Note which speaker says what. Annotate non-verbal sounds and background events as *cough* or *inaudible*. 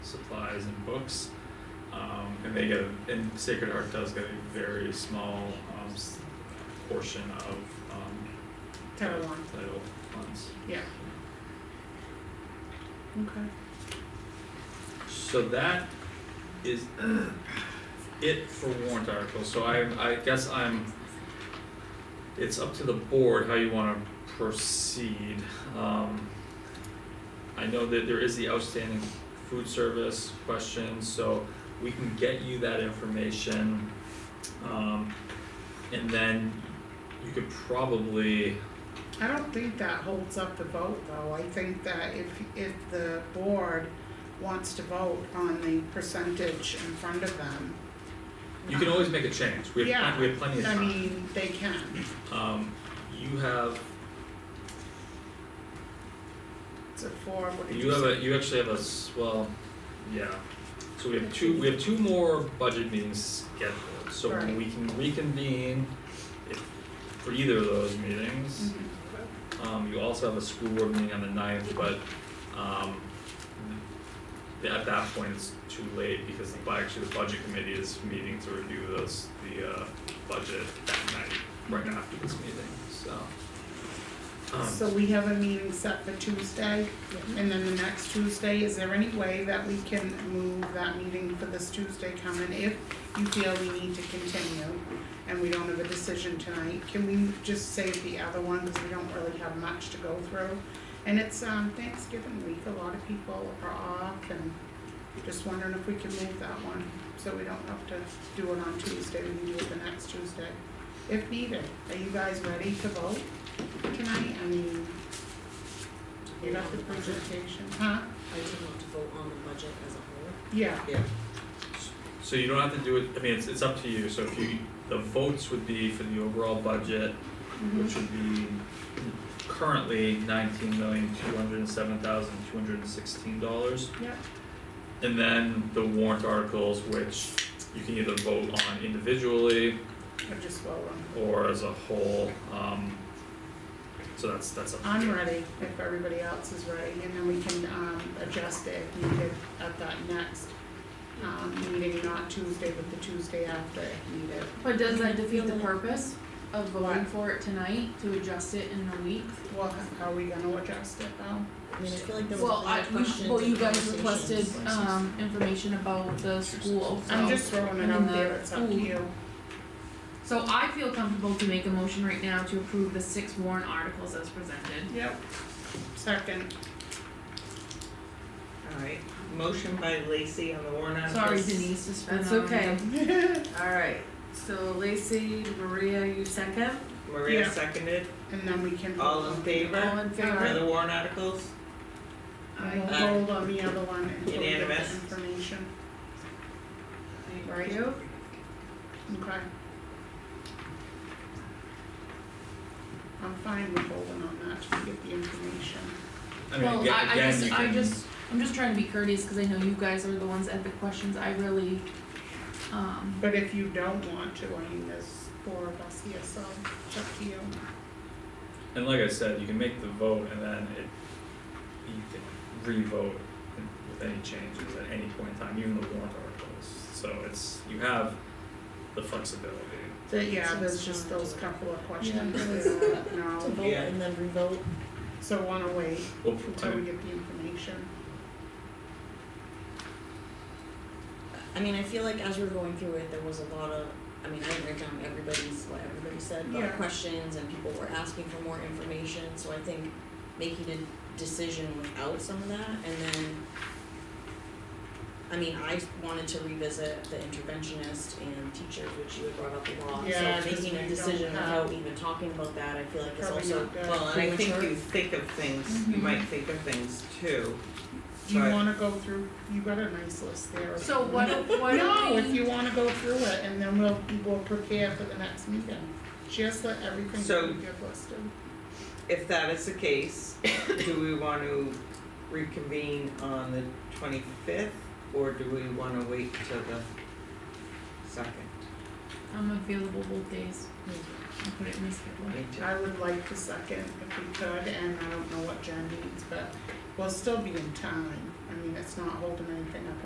Speaker 1: supplies and books. Um, and they get, a- and Sacred Heart does get a very small, um, s- portion of, um,
Speaker 2: Title one,
Speaker 1: title funds.
Speaker 2: yeah. Okay.
Speaker 1: So that is it for warrant articles, so I, I guess I'm, it's up to the board how you wanna proceed, um. I know that there is the outstanding food service question, so we can get you that information. Um, and then you could probably,
Speaker 2: I don't think that holds up the vote though, I think that if, if the board wants to vote on the percentage in front of them,
Speaker 1: you can always make a change, we have, plen- we have plenty of
Speaker 2: I
Speaker 1: time.
Speaker 2: mean, they can,
Speaker 1: Um, you have
Speaker 2: it's a four, what did
Speaker 1: You
Speaker 2: you
Speaker 1: have
Speaker 2: say?
Speaker 1: a, you actually have a, s- well, yeah, so we have two, we have two more budget meetings scheduled, so
Speaker 2: Right.
Speaker 1: we can reconvene if, for either of those meetings.
Speaker 2: Mhm.
Speaker 1: Um, you also have a school board meeting on the ninth, but, um, th- at that point, it's too late because the, bu- actually, the budget committee is meeting to review those, the, uh, budget that night, right after this meeting, so. Um,
Speaker 2: So we have a meeting set for Tuesday, and then the next Tuesday, is there any way that we can move that meeting for this Tuesday coming? If you feel we need to continue and we don't have a decision tonight, can we just save the other one, cause we don't really have much to go through? And it's um Thanksgiving week, a lot of people are off and just wondering if we can move that one, so we don't have to do it on Tuesday, we can do it the next Tuesday. If needed, are you guys ready to vote? tonight, I mean, you got the presentation, huh?
Speaker 3: I do want to vote on the budget as a whole.
Speaker 2: Yeah,
Speaker 3: Yeah.
Speaker 1: So you don't have to do it, I mean, it's it's up to you, so if you, the votes would be for the overall budget,
Speaker 4: Mm-hmm.
Speaker 2: Mm-hmm.
Speaker 1: which would be currently nineteen million, two hundred and seven thousand, two hundred and sixteen dollars.
Speaker 2: Yep.
Speaker 1: And then the warrant articles, which you can either vote on individually
Speaker 2: I just vote on.
Speaker 1: or as a whole, um, so that's, that's up to you.
Speaker 2: I'm ready, if everybody else is ready, and then we can, um, adjust it if needed at that next, um, meeting, not Tuesday, but the Tuesday after if needed.
Speaker 4: But does that defeat the purpose of voting
Speaker 2: What?
Speaker 4: for it tonight to adjust it in a week?
Speaker 2: Well, h- how are we gonna adjust it though?
Speaker 3: I mean, I feel like there was
Speaker 4: Well,
Speaker 3: a
Speaker 4: I,
Speaker 3: lot of
Speaker 4: you,
Speaker 3: questions
Speaker 4: well, you
Speaker 3: and
Speaker 4: guys requested,
Speaker 3: conversations.
Speaker 4: um, information about the school, so.
Speaker 2: I'm just throwing it
Speaker 4: and
Speaker 2: out
Speaker 4: the
Speaker 2: there, it's up to
Speaker 4: food.
Speaker 2: you.
Speaker 4: So I feel comfortable to make a motion right now to approve the six warrant articles as presented.
Speaker 2: Yep. Second,
Speaker 5: Alright, motion by Lacey on the warrant
Speaker 4: Sorry
Speaker 5: articles.
Speaker 4: Denise, just been
Speaker 6: That's
Speaker 4: on
Speaker 6: okay.
Speaker 4: the- *laughs*
Speaker 6: Alright, so Lacey, Maria, you second?
Speaker 5: Maria
Speaker 2: Yeah.
Speaker 5: seconded,
Speaker 2: and then we can.
Speaker 5: all in
Speaker 6: All
Speaker 5: favor
Speaker 6: in
Speaker 5: for
Speaker 6: favor?
Speaker 5: the warrant articles?
Speaker 2: I will
Speaker 5: Aye.
Speaker 2: hold on the other one until we get the
Speaker 5: Unanimous.
Speaker 2: information,
Speaker 6: Thank you.
Speaker 2: okay? I'm fine with holding on that to get the information.
Speaker 1: I mean,
Speaker 4: Well,
Speaker 1: aga-
Speaker 4: I, I
Speaker 1: again, you
Speaker 4: just,
Speaker 1: can.
Speaker 4: I just, I'm just trying to be courteous, cause I know you guys are the ones that have the questions, I really, um,
Speaker 2: But if you don't want to, I mean, there's four of us here, so it's up to you.
Speaker 1: And like I said, you can make the vote and then it, you can re-vote with any changes at any point in time, even the warrant articles. So it's, you have the flexibility.
Speaker 2: But yeah, there's
Speaker 3: Sounds
Speaker 2: just
Speaker 3: fine.
Speaker 2: those couple of questions,
Speaker 3: Yeah.
Speaker 2: that *laughs* we don't
Speaker 3: To
Speaker 2: know.
Speaker 3: vote
Speaker 5: Yeah.
Speaker 3: and then revote.
Speaker 2: so wanna wait
Speaker 1: Well,
Speaker 2: until we
Speaker 1: I,
Speaker 2: get the information.
Speaker 3: I mean, I feel like as we were going through it, there was a lot of, I mean, I didn't write down everybody's, what everybody said,
Speaker 2: Yeah.
Speaker 3: but questions and people were asking for more information, so I think making a decision without some of that and then I mean, I wanted to revisit the interventionist and teachers, which you had brought up a lot,
Speaker 2: Yeah, 'cause
Speaker 3: so making
Speaker 2: we
Speaker 3: a
Speaker 2: don't
Speaker 3: decision
Speaker 2: have-
Speaker 3: without even talking about that, I feel like is
Speaker 2: Probably
Speaker 3: also
Speaker 2: not good.
Speaker 5: Well, and I think
Speaker 3: Premature.
Speaker 5: you think of things, you
Speaker 4: Mhm.
Speaker 5: might think of things too.
Speaker 2: Do you
Speaker 5: Right.
Speaker 2: wanna go through, you got a nice list there.
Speaker 4: so what, what
Speaker 2: No, if you wanna go through it and then we'll, we'll prepare for the next meeting. Just let everything
Speaker 5: So-
Speaker 2: that we have listed.
Speaker 5: If that is the case, do we want to reconvene on the twenty-fifth or do we want to wait till the second?
Speaker 4: I'm available both days, I put it in my schedule.
Speaker 5: Me too.
Speaker 2: Mm-hmm. I would like the second if we could, and I don't know what Jen needs, but we'll still be in time. I mean, it's not holding anything up